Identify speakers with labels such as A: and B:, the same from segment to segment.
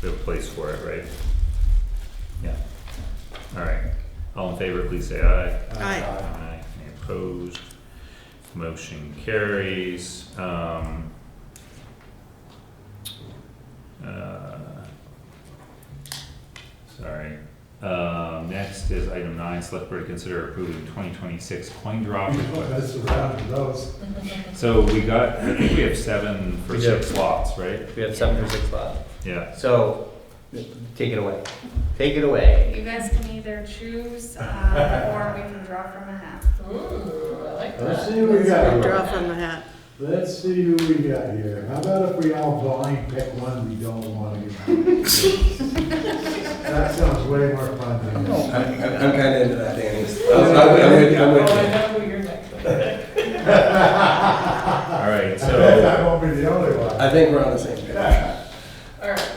A: We have a place for it, right? Yeah. All right. All in favor, please say aye.
B: Aye.
A: Aye. Any opposed? Motion carries. Um, uh, Sorry. Uh, next is item nine, select board to consider approving twenty twenty-six coin drop request.
C: That's around those.
A: So we got, I think we have seven for
D: We do.
A: six lots, right?
D: We have seven or six left.
A: Yeah.
D: So, take it away. Take it away.
E: You guys can either choose, uh, or we can draw from a hat.
F: Ooh, I like
C: Let's
F: that.
C: see what we got
B: Draw
C: here.
B: from the hat.
C: Let's see who we got here. How about if we all blind pick one we don't want to get? That sounds way more fun than this.
G: I'm, I'm kind of into that, Danny. I'm, I'm with you, I'm
F: Oh,
G: with
F: I
G: you.
F: know who your next one is.
A: All right,
C: I bet
A: so, uh,
C: I won't be the only one.
G: I think we're on the same page.
F: All right,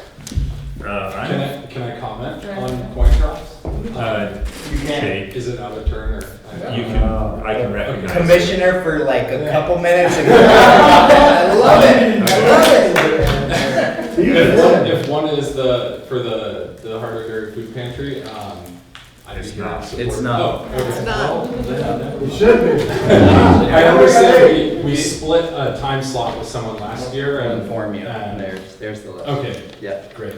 A: uh, I'm
H: Can I, can I comment
F: Sure.
H: on coin drops?
A: Uh, okay,
H: Is it out of turn or? I don't
A: you
H: know.
A: can,
C: Uh,
A: I can recognize. it.
D: Commissioner for like a couple minutes. and- I love it. I love it.
C: You
H: If one,
C: did.
H: if one is the, for the, the Hardwick food pantry, um, I'd be
A: It's
H: here
A: not.
H: to support.
D: It's not.
H: Oh, okay.
B: It's not.
C: You should be.
H: I understand, we, we split a time slot with someone last year
D: I'll
H: and.
D: inform you. Uh,
H: and-
D: There's, there's the list.
H: Okay,
D: Yeah.
H: great.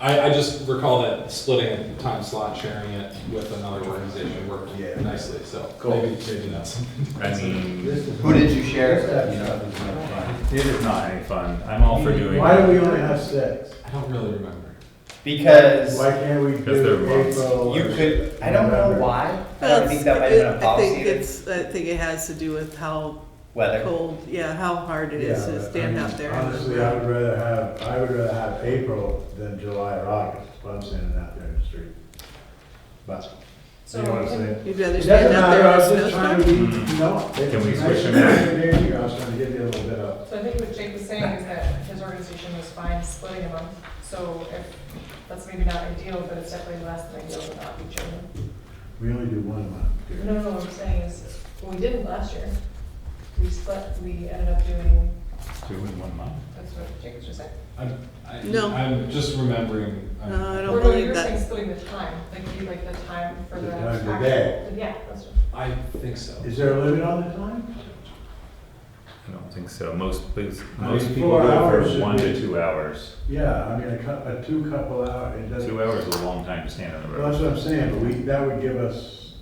H: I, I just recall that splitting a time slot, sharing it with another organization worked
C: Yeah.
H: nicely, so.
D: Cool.
H: Maybe, maybe that's something. to
A: I
H: consider.
A: mean,
D: Who did you share?
C: This stuff is not fun.
A: it is not any fun. I'm all for doing.
C: Why do we only have six?
H: I don't really remember.
D: Because
C: Why can't we
A: Because they're
C: do
A: months.
C: April?
D: you
C: or-
D: could, I don't know
C: November?
D: why. I don't think that might have been a
B: I think
D: policy either.
B: it's, I think it has to do with how
D: Weather.
B: cold, yeah, how hard it
C: Yeah,
B: is
C: but
B: to
C: I
B: stand
C: mean,
B: out there.
C: Honestly, I would rather have, I would rather have April than July or August, if I'm standing out there in the street. But, you know what I'm saying?
B: You'd rather
C: It
B: stand
C: doesn't
B: out
C: matter,
B: there
C: I
B: in
C: was
B: a
C: just trying to
B: snowstorm?
C: be, no.
A: Can we switch them
C: them? I was trying to give you a little bit of,
F: So I think what Jake was saying is that his organization was fine splitting them up. So if, that's maybe not ideal, but it's definitely less than ideal to not be children.
C: we only do one month. here.
F: No, no, what I'm saying is, what we didn't last year, we split, we ended up doing,
A: Two in one month.
F: that's what Jake was just saying.
H: I'm, I,
B: No.
H: I'm just remembering. um, I'm-
B: No, I
F: Or
B: don't
F: no, you
B: believe
F: were saying
B: that.
F: splitting the time, like you, like the time for
C: The
F: the.
C: time of the
F: actual-
C: day.
F: Yeah, that's what.
H: I think so.
C: Is there a limit on the time?
A: I don't think so. Most, please,
C: I
A: most
C: mean,
A: people
C: four
A: go
C: hours
A: for
C: should
A: one to
C: be-
A: two hours.
C: Yeah, I mean, a cou, a two couple hour, it doesn't,
A: Two hours is a long time to stand on the
C: well, that's
A: road.
C: what I'm saying, but we, that would give us,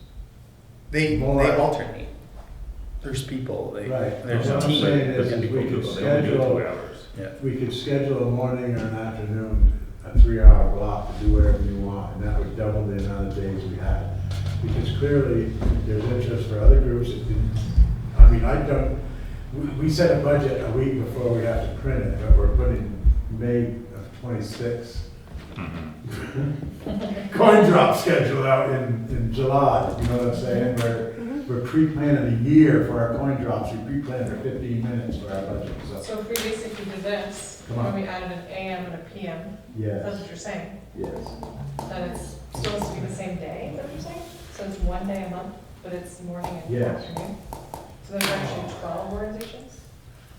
D: They, they
C: More.
D: alternate. There's people, they,
C: Right.
D: there's
C: What
D: a
C: I'm
D: team.
C: saying is,
A: But
C: is
A: people
C: we
A: do,
C: could
A: they only do
C: schedule,
A: two hours.
C: we could schedule a morning or an afternoon, a three hour block to do whatever you want, and that would double the amount of days we had. Because clearly, there's interest for other groups that didn't, I mean, I don't, we, we set a budget a week before we have to print it, but we're putting May of twenty-six
A: Mhm.
C: coin drop schedule out in, in July, you know what I'm saying? We're, we're pre-planning a year for our coin drops, we pre-planned our fifteen minutes for our budget, so,
F: So if we basically did this,
C: Come on.
F: when we added an AM and a PM, that's
C: yes,
F: what you're saying,
C: yes.
F: that it's supposed to be the same day, is that what you're saying? So it's one day a month, but it's morning and
C: Yes.
F: afternoon? So there's actually twelve organizations?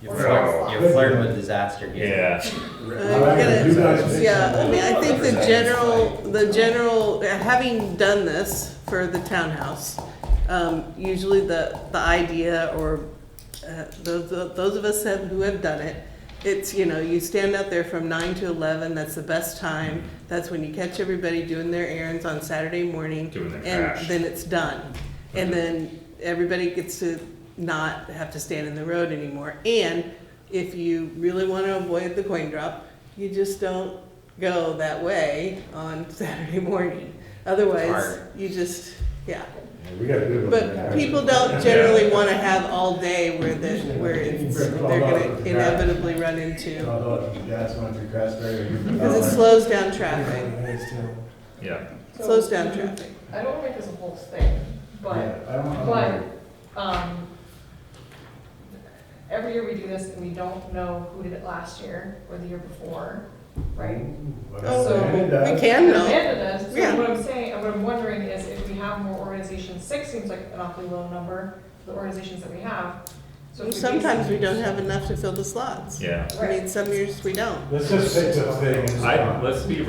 D: You're
F: Or
D: flirt-
F: six.
D: you're flirting with disaster here.
A: Yeah,
B: Uh,
C: I like it.
B: you
C: You
B: gotta-
C: guys-
B: Yeah, I mean, I think the
G: Represent.
B: general, the general, having done this for the townhouse, um, usually the, the idea or, uh, those, those of us have, who have done it, it's, you know, you stand out there from nine to eleven, that's the best time, that's when you catch everybody doing their errands on Saturday morning.
A: Doing their trash. Mm-hmm.
B: And then it's done. And then everybody gets to not have to stand in the road anymore. And if you really want to avoid the coin drop, you just don't go that way on Saturday morning. Otherwise,
D: Hard.
B: you just, yeah.
C: We got a good one.
B: But people don't generally want to have all day where the, where it's, they're gonna inevitabally run into,
C: Although, that's one through Craftsbury.
B: because it slows down traffic.
A: yeah.
B: It Slows down traffic.
F: I don't want to make this a whole thing, but,
C: Yeah, I don't know.
F: but, um, every year we do this and we don't know who did it last year or the year before, right?
C: But
B: Oh,
C: it does.
B: We can though.
F: Amanda does,
B: Yeah.
F: so what I'm saying, and what I'm wondering is if we have more organizations, six seems like an awfully low number, the organizations that we have. So
B: And
F: if you
B: Sometimes we
F: basically-
B: don't have enough to fill the slots.
A: yeah.
B: I mean, some years we don't.
C: Let's just pick the thing. and
A: I,
C: start.
A: let's be